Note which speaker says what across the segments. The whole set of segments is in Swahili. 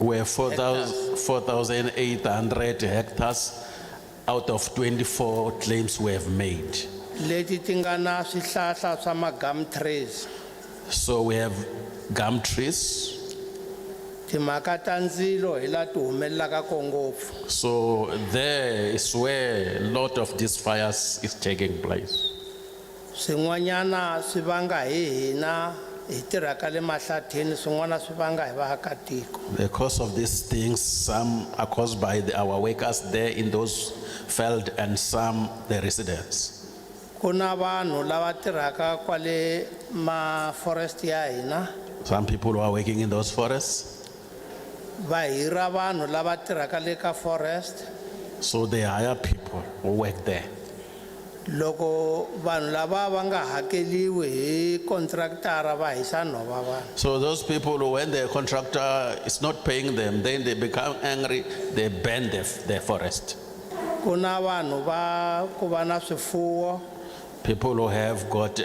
Speaker 1: were 4,800 hectares out of 24 claims we have made.
Speaker 2: leti ti nga na swihlahla swa ma-gum trees
Speaker 1: So we have gum trees.
Speaker 2: timhaka ta ndzilo hi laha ti humelelaka ko ngopfu
Speaker 1: So there is where a lot of these fires is taking place.
Speaker 2: swin'wanyana swi vanga hi hina hi tirhaka le mahlathini swin'wana swi vanga hi vaakatiko
Speaker 1: The cause of these things, some are caused by the- our workers there in those field and some the residents.
Speaker 2: ku na vanhu lava tirhaka kwale maforest ya hina
Speaker 1: Some people who are working in those forests,
Speaker 2: va hira vanhu lava tirhaka le ka forest
Speaker 1: so they hire people who work there.
Speaker 2: loko vanhu lava va nga hakeliwi hi contractara va hisa nhova vanhu
Speaker 1: So those people, who, when the contractor is not paying them, then they become angry, they burn the, the forest.
Speaker 2: ku na vanhu va ku va na swifuwo
Speaker 1: People who have got, uh,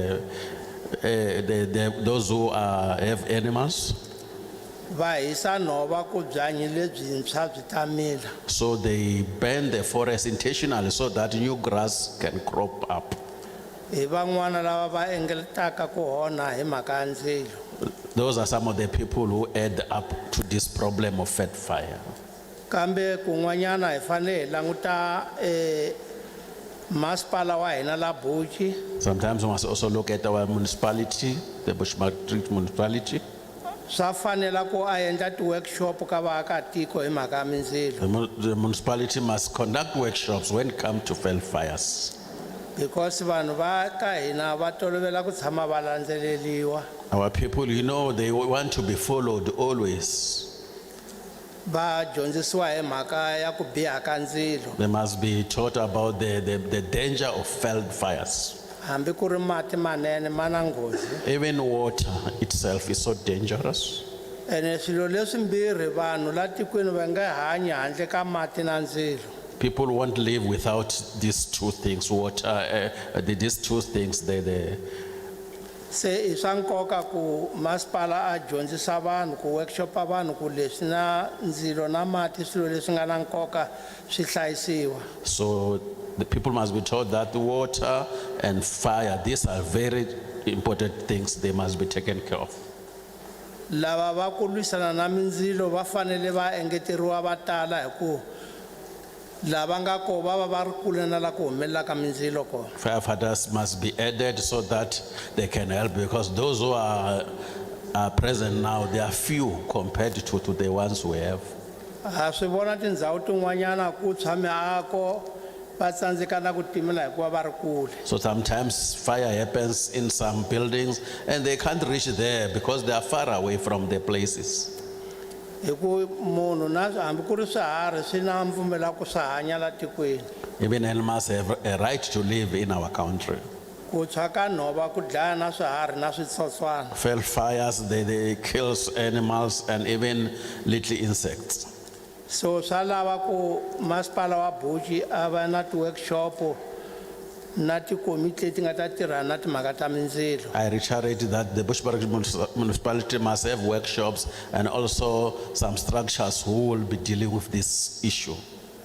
Speaker 1: uh, the, the, those who are, have animals,
Speaker 2: va hisa nhova ku byanyi lebyintshwa byi ta mila
Speaker 1: so they burn the forest intentionally so that new grass can crop up.
Speaker 2: hi van'wana lava va engetaka ku onha hi mhaka ya ndzilo
Speaker 1: Those are some of the people who add up to this problem of fat fire.
Speaker 2: kambe kun'wanyana hi fanele hi languta eh, masipala wa hina la buci
Speaker 1: Sometimes we must also look at our municipality, the Bushmastreet municipality.
Speaker 2: swa fanela ku a endla ti-workshop ka vaakatiko hi mhaka ya mindzilo
Speaker 1: The mu- the municipality must conduct workshops when it comes to fell fires.
Speaker 2: because vanhu va ka hina va tolovela ku tshama va landzeleriwa
Speaker 1: Our people, you know, they want to be followed always.
Speaker 2: va dyondzisiwa hi mhaka ya ku biha ka ndzilo
Speaker 1: They must be taught about the, the, the danger of fell fires.
Speaker 2: hambi ku ri mati manene ma na nghozi
Speaker 1: Even water itself is so dangerous.
Speaker 2: ene swilo leswimbirhi vanhu la tikweni va nge hanyi handle ka mati na ndzilo
Speaker 1: People won't live without these two things, water, uh, uh, the- these two things, the, the,
Speaker 2: se i swa nkoka ku masipala a dyondzisa vanhu ku workshopa vanhu ku leswi na ndzilo na mati i swilo leswi nga na nkoka swi hlayisiwa
Speaker 1: So the people must be taught that water and fire, these are very important things, they must be taken care of.
Speaker 2: lava va ku lwisana na mindzilo va fanele va engeteriwa va tala hi ku lava nga ko va va va ri kule na la ku humelela ka mindzilo kona
Speaker 1: Firefighters must be added so that they can help because those who are, are present now, they are few compared to, to the ones we have.
Speaker 2: ha swi vona tindhawu tin'wanyana ku tshwa miako va tsandzeka na ku timela hikuva va ri kule
Speaker 1: So sometimes fire happens in some buildings and they can't reach there because they are far away from the places.
Speaker 2: hi ku munhu na hambi ku ri swiharhi swi na mpfumela ku swi hanya la tikweni
Speaker 1: Even animals have a right to live in our country.
Speaker 2: ku tshwa ka nhova ku dlaya na swiharhi na switsotswana
Speaker 1: fell fires, they, they kills animals and even little insects.
Speaker 2: so swa lava ku masipala wa buci a va na ti-workshop na tikomiti leti nga ta tirhana na timhaka ta mindzilo
Speaker 1: I reiterate that the Bushbuck municipality must have workshops and also some structures who will be dealing with this issue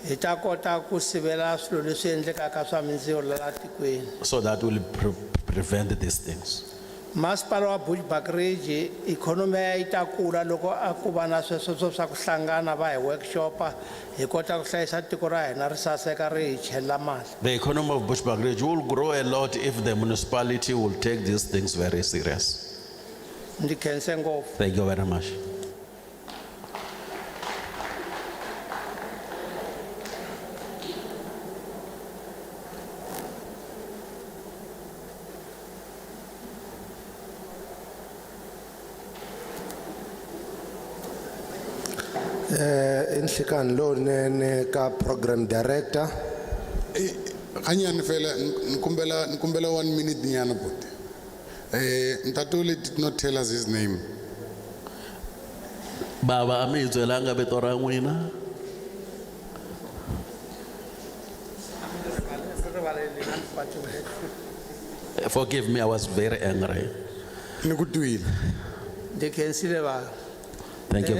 Speaker 2: hi ta kota ku sivela swilo leswi endlekaka swa mindzilo la tikweni
Speaker 1: so that will pre- prevent these things.
Speaker 2: masipala wa bushbuckridge ikhonomi ya yi ta kula loko a ku va na swesweswo swa ku hlangana va hi workshopa hi kota ku hlayisa tiko ra hina ri saseka ri hi chelela mali
Speaker 1: The economy of Bushbuck Ridge will grow a lot if the municipality will take these things very serious.
Speaker 2: ndzi khense ngopfu
Speaker 1: Thank you very much.
Speaker 3: Eh inhlikani lonene ka program director
Speaker 4: ganyane fela nkumbela nkumbela one minute nyana but eh ntatole did not tell us his name
Speaker 1: Baba mi byelanga vito ra n'wina forgive me I was very angry.
Speaker 4: ni ku twile
Speaker 2: ndzi khensile vanhu
Speaker 1: Thank you